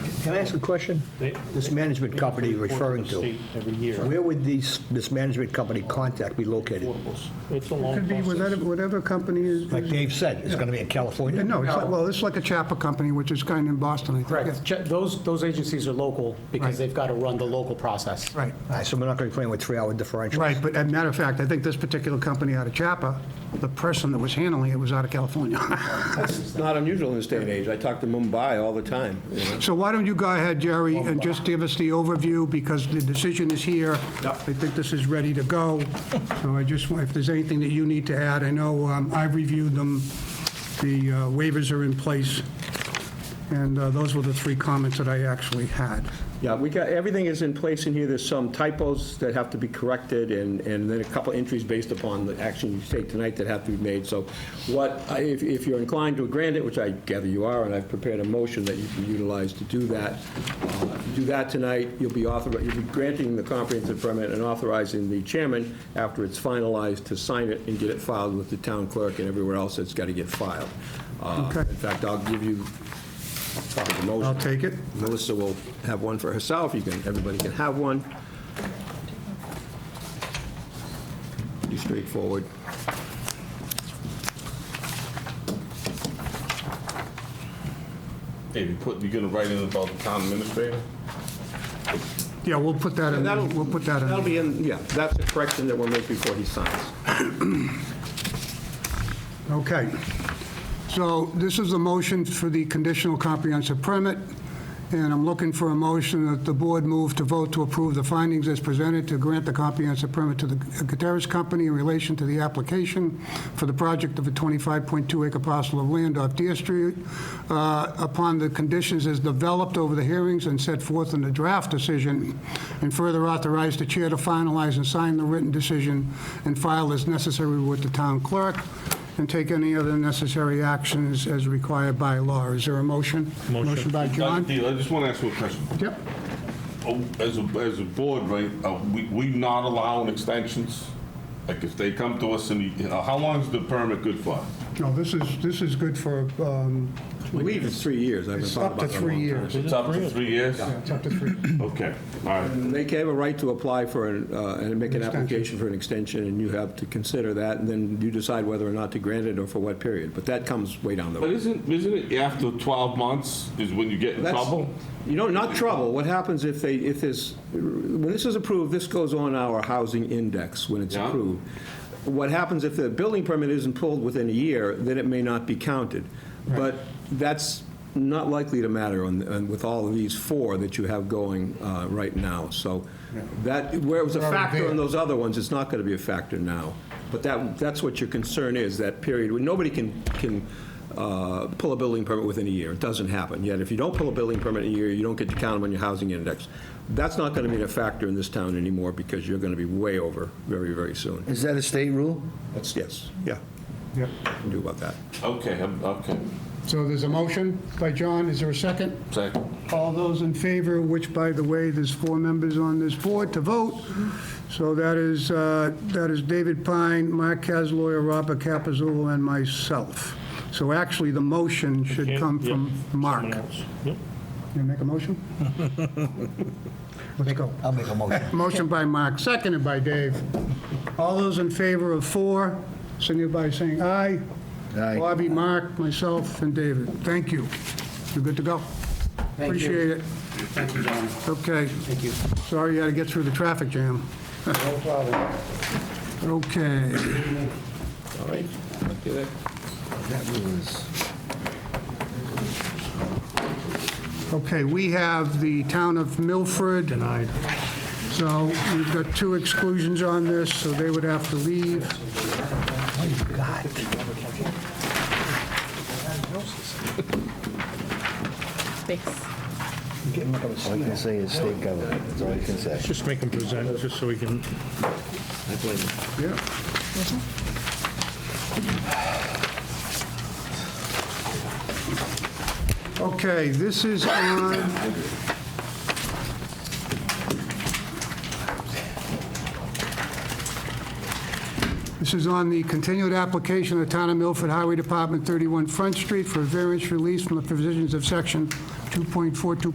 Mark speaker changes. Speaker 1: Can I ask a question?
Speaker 2: They-
Speaker 1: This management company you're
Speaker 2: They report
Speaker 1: referring
Speaker 2: the
Speaker 1: to,
Speaker 2: state Every year.
Speaker 1: where would these, this management company contact be located?
Speaker 2: Affordables. It's a long
Speaker 3: Could be whatever,
Speaker 2: process.
Speaker 3: whatever company is,
Speaker 1: Like Dave said, it's going to be in California?
Speaker 3: no, it's like, well, it's like a Chapa company, which is kind of in Boston, I think.
Speaker 4: Correct. Ch- Those, those agencies are local because
Speaker 3: Right.
Speaker 4: they've got to run the local process.
Speaker 3: Right,
Speaker 1: All right, so we're not going to be playing with three-hour differentials?
Speaker 3: right, but as a matter of fact, I think this particular company out of Chapa, the person that was handling it was out of California.
Speaker 5: It's not unusual in this day and age. I talk to Mumbai all the time. you know.
Speaker 3: So why don't you go ahead, Jerry, and just give us the overview, because the decision is here. I think this is ready to go. So I just, want- if there's anything that you need to add, I know um, I've reviewed them, the uh, waivers are in place, and uh, those were the three comments that I actually had.
Speaker 5: Yeah, we got, everything is in place in here. There's some typos that have to be corrected, and, and then a couple entries based upon the action you take tonight that have to be made. So what, I- if, if you're inclined to grant it, which I gather you are, and I've prepared a motion that you can utilize to do that, uh, if you do that tonight, you'll be author, you'll be granting the comprehensive permit and authorizing the chairman, after it's finalized, to sign it and get it filed with the town clerk and everywhere else that's got to get filed. Uh,
Speaker 3: Okay.
Speaker 5: In fact, I'll give you probably the motion.
Speaker 3: I'll take it.
Speaker 5: Melissa will have one for herself, you can, everybody can have one. Pretty straightforward.
Speaker 6: Hey, you put, you gonna write in about the town administrator?
Speaker 3: Yeah, we'll put that in,
Speaker 5: That'll-
Speaker 3: we'll put that
Speaker 5: That'll
Speaker 3: in.
Speaker 5: be in, yeah, that's a correction that we'll make before he signs.
Speaker 3: Okay. So this is the motion for the conditional comprehensive permit, and I'm looking for a motion that the board move to vote to approve the findings as presented to grant the comprehensive permit to the Gutierrez Company in relation to the application for the project of a 25.2-acre parcel of land off Deer Street uh, upon the conditions as developed over the hearings and set forth in the draft decision, and further authorize the chair to finalize and sign the written decision and file as necessary with the town clerk, and take any other necessary actions as required by law. Is there a motion?
Speaker 2: Motion.
Speaker 3: by John?
Speaker 6: Dr. Deal, I just wanna ask you a question.
Speaker 3: Yep.
Speaker 6: Oh, As a, as a board, right, uh, we, we not allowing extensions? Like if they come to us and, you- uh, how long is the permit good for?
Speaker 3: No, this is, this is good for, um,
Speaker 5: I believe it's three years, I've been
Speaker 3: It's
Speaker 5: talking
Speaker 3: up to
Speaker 5: about that a
Speaker 3: three
Speaker 5: long time.
Speaker 3: years.
Speaker 6: It's up to three years?
Speaker 3: it's up to three.
Speaker 6: Okay, all right.
Speaker 5: And They have a right to apply for, an, uh, and make an application for an extension, and you have to consider that, and then you decide whether or not to grant it or for what period, but that comes way down the road.
Speaker 6: But isn't, isn't it after 12 months is when you get in
Speaker 5: That's-
Speaker 6: trouble?
Speaker 5: You know, not trouble. What happens if they, if this, when this is approved, this goes on our housing index when it's
Speaker 6: Yeah.
Speaker 5: approved. What happens if the building permit isn't pulled within a year, then it may not be counted. But that's not likely to matter on, on- with all of these four that you have going uh, right now. So that, where it was a
Speaker 3: We're already
Speaker 5: factor
Speaker 3: there.
Speaker 5: in those other ones, it's not going to be a factor now. But that, that's what your concern is, that period, when nobody can, can uh, pull a building permit within a year. It doesn't happen. Yet if you don't pull a building permit in a year, you don't get to count them on your housing index. That's not going to be a factor in this town anymore because you're going to be way over very, very soon.
Speaker 7: Is that a state rule?
Speaker 5: That's, yes, yeah.
Speaker 3: Yep.
Speaker 5: Can do about that.
Speaker 6: Okay, I'm- okay,
Speaker 3: So there's a motion by John, is there a second?
Speaker 6: second.
Speaker 3: All those in favor, which, by the way, there's four members on this board to vote. So that is, uh, that is David Pine, Mark Casaloy, Robert Capizul, and myself. So actually, the motion should
Speaker 2: Can't-
Speaker 3: come
Speaker 2: yeah,
Speaker 3: from Mark.
Speaker 2: someone else. Yep.
Speaker 3: You make a motion? Let's go.
Speaker 1: I'll make a motion.
Speaker 3: Motion by Mark, seconded by Dave. All those in favor of four, signify by saying aye.
Speaker 7: Aye.
Speaker 3: Bobby, Mark, myself, and David. Thank you. You're good to go.
Speaker 4: Thank you.
Speaker 3: Appreciate it.
Speaker 4: Thank you, John.
Speaker 3: Okay. Thank you. Sorry you had to get through the traffic jam. No problem. Okay.
Speaker 5: All right? Okay, there.
Speaker 3: Okay, we have the town of Milford. Denied. So we've got two exclusions on this, so they would have to leave.
Speaker 8: Thanks.
Speaker 7: All I can say is state government, that's all I can say.
Speaker 2: Just make them present, just so we can,
Speaker 3: Yeah. Okay, this is on... This is on the continued application of the Town of Milford Highway Department, 31 Front Street, for variance release from the provisions of Section 2.42.